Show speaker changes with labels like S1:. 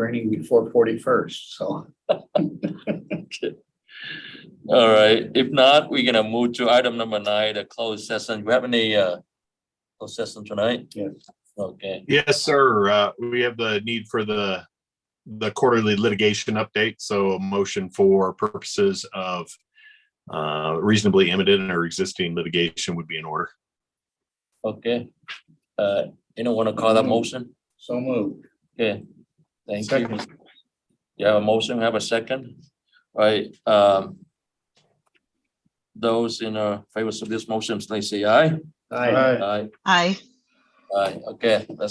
S1: raining before forty-first, so.
S2: Okay. All right, if not, we're gonna move to item number nine, the closed session. We have any uh closed session tonight?
S1: Yes.
S2: Okay,
S3: Yes, sir. Uh, we have the need for the, the quarterly litigation update, so a motion for purposes of uh, reasonably imminent or existing litigation would be in order.
S2: okay. Uh, anyone wanna call that motion?
S1: So moved.
S2: Okay, thank you.
S1: Second.
S2: You have a motion, have a second? All right, um. Those in uh, favor of this motion, please say aye.
S1: Aye.
S2: Aye,
S4: Aye.
S2: aye, okay, let's